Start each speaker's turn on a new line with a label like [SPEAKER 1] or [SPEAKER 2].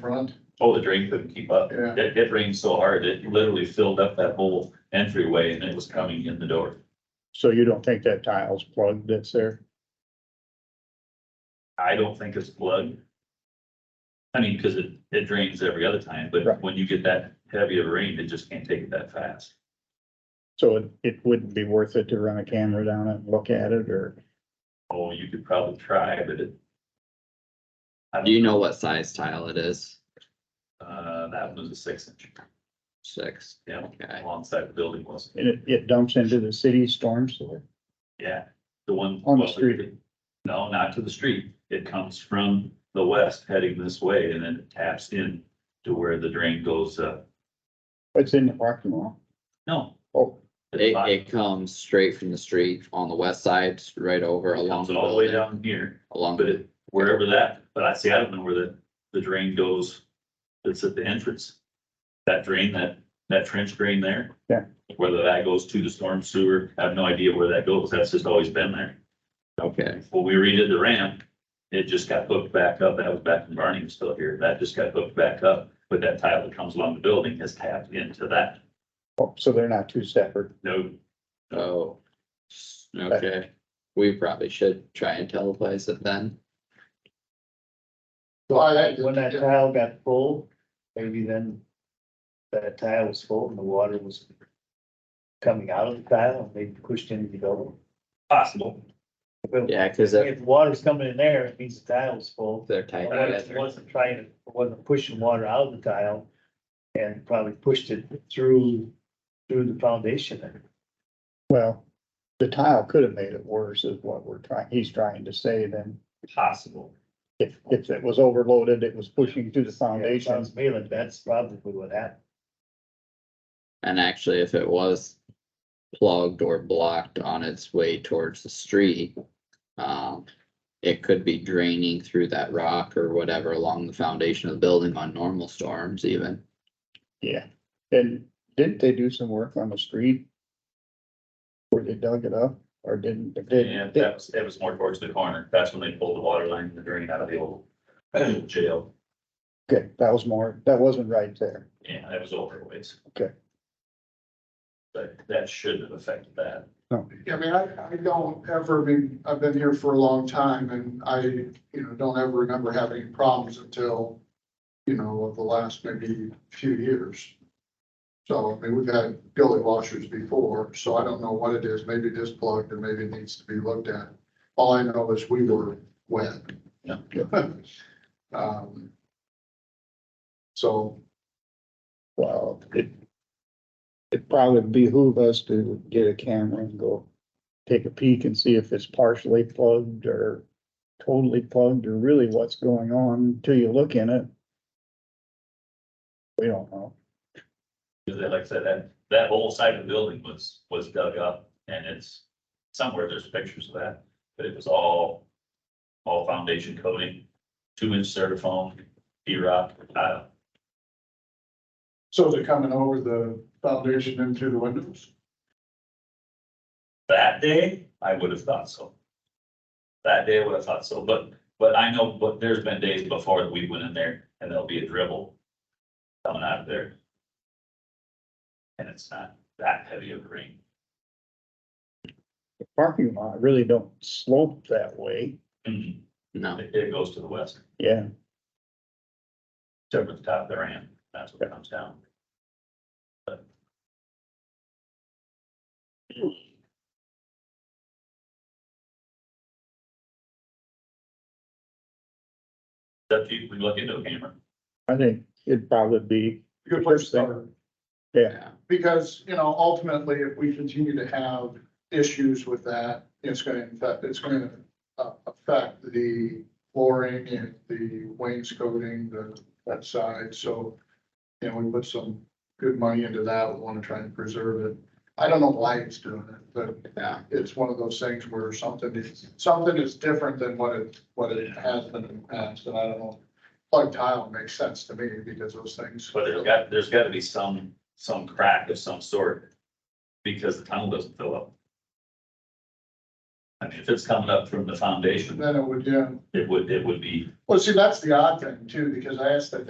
[SPEAKER 1] front.
[SPEAKER 2] Oh, the drain couldn't keep up.
[SPEAKER 1] Yeah.
[SPEAKER 2] It, it rained so hard, it literally filled up that whole entryway and it was coming in the door.
[SPEAKER 3] So you don't think that tile's plugged that's there?
[SPEAKER 2] I don't think it's plugged. I mean, because it, it drains every other time, but
[SPEAKER 3] Right.
[SPEAKER 2] when you get that heavy of rain, it just can't take it that fast.
[SPEAKER 3] So it, it wouldn't be worth it to run a camera down it and look at it or?
[SPEAKER 2] Oh, you could probably try, but it. I
[SPEAKER 4] Do you
[SPEAKER 2] don't,
[SPEAKER 4] know what size tile it is?
[SPEAKER 2] uh, that was a six inch,
[SPEAKER 4] Six,
[SPEAKER 2] yeah,
[SPEAKER 4] okay.
[SPEAKER 2] alongside the building was,
[SPEAKER 3] And it, it dumps into the city storm sewer.
[SPEAKER 2] yeah, the one.
[SPEAKER 3] On the
[SPEAKER 2] well,
[SPEAKER 3] street.
[SPEAKER 2] No, not to the street. It comes from the west heading this way and then it taps in to where the drain goes, uh,
[SPEAKER 3] It's in the parking lot.
[SPEAKER 2] no.
[SPEAKER 3] Oh.
[SPEAKER 2] At the
[SPEAKER 4] It,
[SPEAKER 2] bottom.
[SPEAKER 4] it comes straight from the street on the west side, right over
[SPEAKER 2] It
[SPEAKER 4] along.
[SPEAKER 2] comes all the way
[SPEAKER 4] building,
[SPEAKER 2] down here,
[SPEAKER 4] Along,
[SPEAKER 2] but it, wherever that, but I see, I don't know where the, the drain goes. It's at the entrance. That drain, that, that trench drain there.
[SPEAKER 3] Yeah.
[SPEAKER 2] Whether that goes to the storm sewer, I have no idea where that goes. That's just always been there.
[SPEAKER 4] okay,
[SPEAKER 2] When we redid the ramp, it just got hooked back up. That was back when Barney was still here. That just got hooked back up. But that tile that comes along the building has tapped into that.
[SPEAKER 3] Oh, so they're not two separate.
[SPEAKER 2] No,
[SPEAKER 4] oh. Okay, we probably should try and teleplace it then.
[SPEAKER 5] When that- when that tile got full, maybe then that tile was full and the water was coming out of the tile and they pushed into the building.
[SPEAKER 2] possible.
[SPEAKER 5] But
[SPEAKER 4] Yeah, cause if
[SPEAKER 5] If water's coming in there, it means the tile's full.
[SPEAKER 4] they're tight
[SPEAKER 5] But It
[SPEAKER 4] together,
[SPEAKER 5] wasn't trying, to- it wasn't pushing water out of the tile and probably pushed it through, through the foundation there.
[SPEAKER 3] Well, the tile could have made it worse is what we're trying, he's trying to say then.
[SPEAKER 2] Possible.
[SPEAKER 3] If, if it was overloaded, it was pushing through the foundation.
[SPEAKER 5] Sounds me like that's probably what happened.
[SPEAKER 4] and actually if it was. Plugged or blocked on its way towards the street. Um, it could be draining through that rock or whatever along the foundation of the building on normal storms even.
[SPEAKER 3] Yeah. And didn't they do some work on the street? Where they dug it up or didn't? did-
[SPEAKER 2] And that was, that was more towards the corner. That's when they pulled the water line and the drain out of the old jail.
[SPEAKER 3] Okay, that was more, that wasn't right there.
[SPEAKER 2] Yeah, that was over ways.
[SPEAKER 3] Okay.
[SPEAKER 2] But that shouldn't have affected that.
[SPEAKER 1] I mean, I, I don't ever been, I've been here for a long time and I, you know, don't ever remember having any problems until, you know, the last maybe few years. So, I mean, we've had gully washers before, so I don't know what it is. Maybe it is plugged and maybe it needs to be looked at. All I know is we were wet.
[SPEAKER 2] Yeah.
[SPEAKER 1] Um, So
[SPEAKER 3] Well, it. It probably behoove us to get a camera and go take a peek and see if it's partially plugged or. Totally plugged or really what's going on till you look in it. We don't know.
[SPEAKER 2] Because like I said, that, that whole side of the building was, was dug up and it's somewhere, there's pictures of that, but it was all, all foundation coating, two inch certifoam, E-rock, tile.
[SPEAKER 1] So they're coming over the foundation and through the windows?
[SPEAKER 2] That day, I would have thought so. That day, I would have thought so, but, but I know, but there's been days before that we went in there and there'll be a dribble coming out of there. And it's not that heavy of a rain.
[SPEAKER 3] The parking lot really don't slope that way.
[SPEAKER 2] It,
[SPEAKER 4] No,
[SPEAKER 2] Mm-hmm. it goes to the west,
[SPEAKER 3] Yeah,
[SPEAKER 2] except for the top of the ramp, that's what comes down. That you, we look into a camera.
[SPEAKER 3] I think it'd probably be,
[SPEAKER 1] Good place to start,
[SPEAKER 4] yeah.
[SPEAKER 1] because, you know, ultimately, if we continue to have issues with that, it's gonna affect, it's gonna uh, affect the flooring and the wainscoting, the, that side, so. You know, we put some good money into that, we wanna try and preserve it. I don't know why it's doing it, but
[SPEAKER 4] Yeah.
[SPEAKER 1] it's one of those things where something is, something is different than what it, what it has been in the past, and I don't know. Plug tile makes sense to me because those things.
[SPEAKER 2] But there's got, there's gotta be some, some crack of some sort, because the tunnel doesn't fill up. I mean, if it's coming up from the foundation,
[SPEAKER 1] Then it would, yeah,
[SPEAKER 2] it would, it would be
[SPEAKER 1] well, see, that's the odd thing too, because I asked that